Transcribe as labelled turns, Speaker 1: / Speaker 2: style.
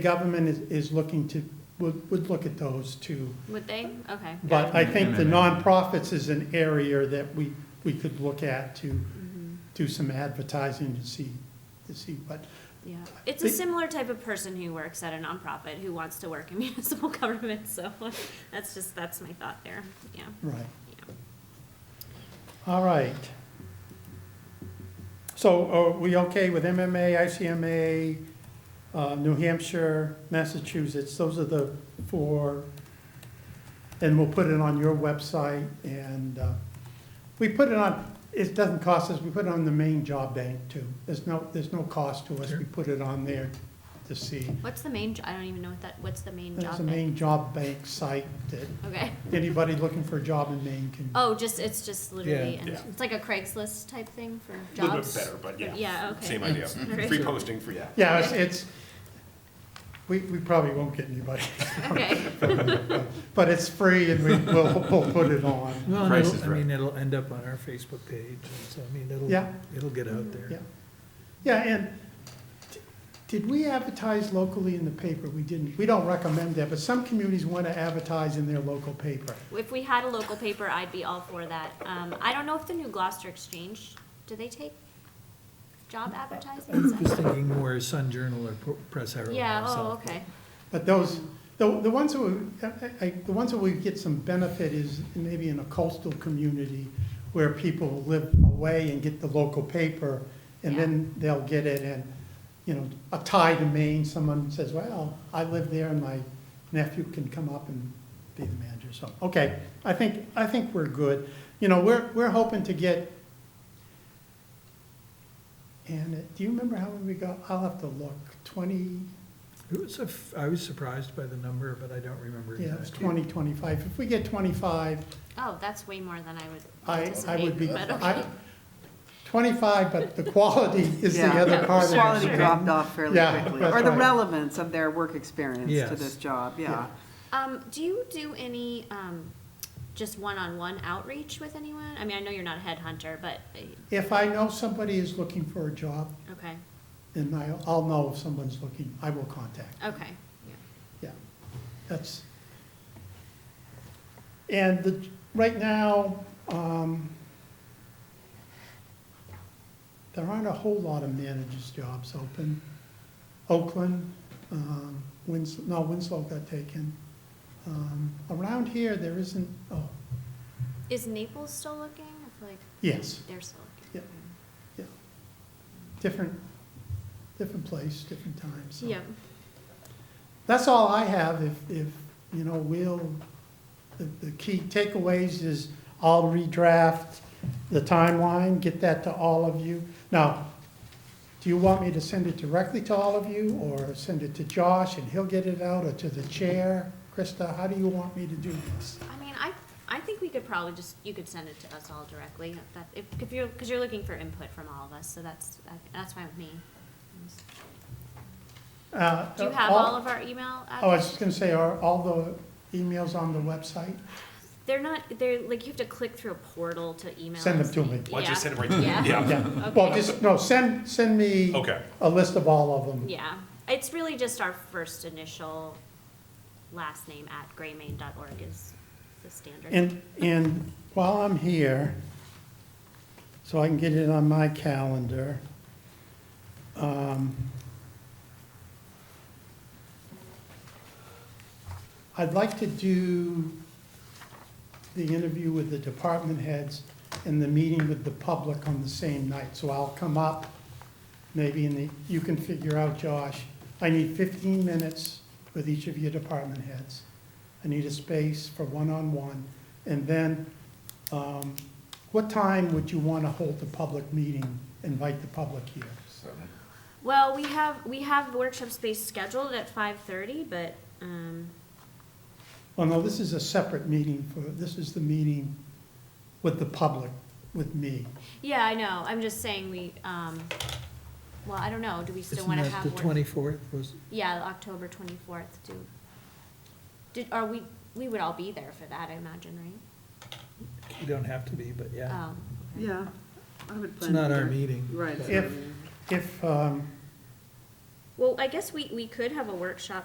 Speaker 1: government is, is looking to, would, would look at those too.
Speaker 2: Would they? Okay.
Speaker 1: But I think the
Speaker 3: Mm-hmm.
Speaker 1: nonprofits is an area that we, we could look at to do some advertising to see, to see what.
Speaker 2: Yeah. It's a
Speaker 1: They-
Speaker 2: similar type of person who works at a nonprofit who wants to work in municipal government, so that's just, that's my thought there, yeah.
Speaker 1: right.
Speaker 2: Yeah.
Speaker 1: All right. So are we okay with MMA, ICMA, uh, New Hampshire, Massachusetts? Those are the four. And we'll put it on your website and uh, we put it on, it doesn't cost us, we put it on the main job bank too. There's no, there's no cost to us. We put it on there to see.
Speaker 2: What's the main, jo- I don't even know what that, what's the main
Speaker 1: That's
Speaker 2: job?
Speaker 1: the
Speaker 2: name?
Speaker 1: main job bank site that
Speaker 2: Okay.
Speaker 1: anybody looking for a job in Maine can.
Speaker 2: Oh, just, it's just literally, and
Speaker 4: Yeah.
Speaker 2: it's like a Craigslist type thing for
Speaker 4: A little bit
Speaker 2: jobs?
Speaker 4: better, but yeah.
Speaker 2: Yeah, okay.
Speaker 4: Same idea.
Speaker 2: Alright.
Speaker 4: Free posting, free, yeah.
Speaker 1: Yeah, it's, it's, we, we probably won't get anybody,
Speaker 2: Okay,
Speaker 1: but it's free and we will, we'll put it on.
Speaker 5: Well, and
Speaker 4: Price
Speaker 5: it'll-
Speaker 4: is
Speaker 5: I
Speaker 4: right.
Speaker 5: mean, it'll end up on our Facebook page, and so, I mean,
Speaker 1: Yeah.
Speaker 5: it'll, it'll get out there.
Speaker 1: Yeah. Yeah, and d- did we advertise locally in the paper? We didn't, we don't recommend that, but some communities want to advertise in their local paper.
Speaker 2: if we had a local paper, I'd be all for that. Um, I don't know if the new Gloucester Exchange, do they take job advertising? Is that-
Speaker 5: Just thinking more Sun Journal or Pro- Press Herald.
Speaker 2: Yeah, oh,
Speaker 5: so.
Speaker 2: okay.
Speaker 1: But those, the, the ones that, we- I- I- the ones that we get some benefit is maybe in a coastal community where people live away and get the local paper, and then they'll get it, and, you know, a tie to Maine, someone says, well, I live there, and my nephew can come up and be the manager, so, okay, I think, I think we're good. You know, we're, we're hoping to get, and do you remember how many we got? I'll have to look, twenty,
Speaker 5: It was a f- I was surprised by the number, but I don't remember.
Speaker 1: yeah, it's
Speaker 5: exactly.
Speaker 1: 20, 25. If we get 25,
Speaker 2: Oh, that's way more than I would
Speaker 1: I, I would be,
Speaker 2: anticipate, but
Speaker 1: I,
Speaker 2: okay.
Speaker 1: 25, but the quality is the
Speaker 6: Yeah,
Speaker 1: other part of it.
Speaker 6: Quality dropped off fairly
Speaker 1: Yeah,
Speaker 6: quickly,
Speaker 1: that's
Speaker 6: or the
Speaker 1: right.
Speaker 6: relevance of their work experience to
Speaker 5: Yes.
Speaker 6: this job,
Speaker 1: Yeah.
Speaker 6: yeah.
Speaker 2: Um, do you do any, um, just one-on-one outreach with anyone? I mean, I know you're not a headhunter, but, uh,
Speaker 1: If I know somebody is looking for a job,
Speaker 2: okay,
Speaker 1: then I'll, I'll know if someone's looking, I will contact,
Speaker 2: okay. yeah.
Speaker 1: yeah. That's, and the, right now, um, there aren't a whole lot of managers' jobs open. Oakland, um, Wins, no, Winslow got taken. Um, around here, there isn't, oh,
Speaker 2: Is Naples still looking? I feel like
Speaker 1: yes,
Speaker 2: they're still looking.
Speaker 1: Yep. yeah. Different, different place, different time, so.
Speaker 2: Yeah,
Speaker 1: That's all I have, if, if, you know, we'll, the, the key takeaways is I'll redraft the timeline, get that to all of you. Now, do you want me to send it directly to all of you, or send it to Josh and he'll get it out, or to the chair? Krista, how do you want me to do this?
Speaker 2: I mean, I, I think we could probably just, you could send it to us all directly, if that, if, if you're, because you're looking for input from all of us, so that's, that's fine with me.
Speaker 1: Uh,
Speaker 2: Do you have all of our
Speaker 1: Oh,
Speaker 2: email?
Speaker 1: I was
Speaker 2: addresses?
Speaker 1: just gonna say, are all the emails on the website?
Speaker 2: They're not, they're, like, you have to click through a portal to email.
Speaker 1: Send them
Speaker 2: us.
Speaker 1: to me.
Speaker 4: Why don't you
Speaker 2: Yeah.
Speaker 4: send it right to me?
Speaker 2: Yeah.
Speaker 1: Yeah, well,
Speaker 2: Okay.
Speaker 1: just, no, send, send me
Speaker 4: Okay.
Speaker 1: a list of all of them.
Speaker 2: Yeah, it's really just our first initial last name at graymain.org is the standard.
Speaker 1: And, and while I'm here, so I can get it on my calendar, um, I'd like to do the interview with the department heads and the meeting with the public on the same night. So I'll come up, maybe in the, you can figure out, Josh, I need 15 minutes with each of your department heads. I need a space for one-on-one. And then, um, what time would you want to hold the public meeting, invite the public here?
Speaker 2: Well, we have, we have workshop space scheduled at five thirty, but, um,
Speaker 1: Oh, no, this is a separate meeting for, this is the meeting with the public, with me.
Speaker 2: yeah, I know, I'm just saying we, um, well, I don't know, do we still
Speaker 5: Isn't
Speaker 2: wanna
Speaker 5: that
Speaker 2: have?
Speaker 5: the
Speaker 2: work-
Speaker 5: twenty-fourth was,
Speaker 2: Yeah, October twenty-fourth, do, did, are we, we would all be there for that, I imagine, right?
Speaker 5: you don't have to be, but yeah.
Speaker 2: Oh, okay.
Speaker 6: Yeah, I would plan.
Speaker 5: It's not
Speaker 6: to
Speaker 5: our
Speaker 6: do it.
Speaker 5: meeting.
Speaker 6: Right. it's
Speaker 1: If-
Speaker 6: not our meeting.
Speaker 1: If, um,
Speaker 2: Well, I guess we, we could have a workshop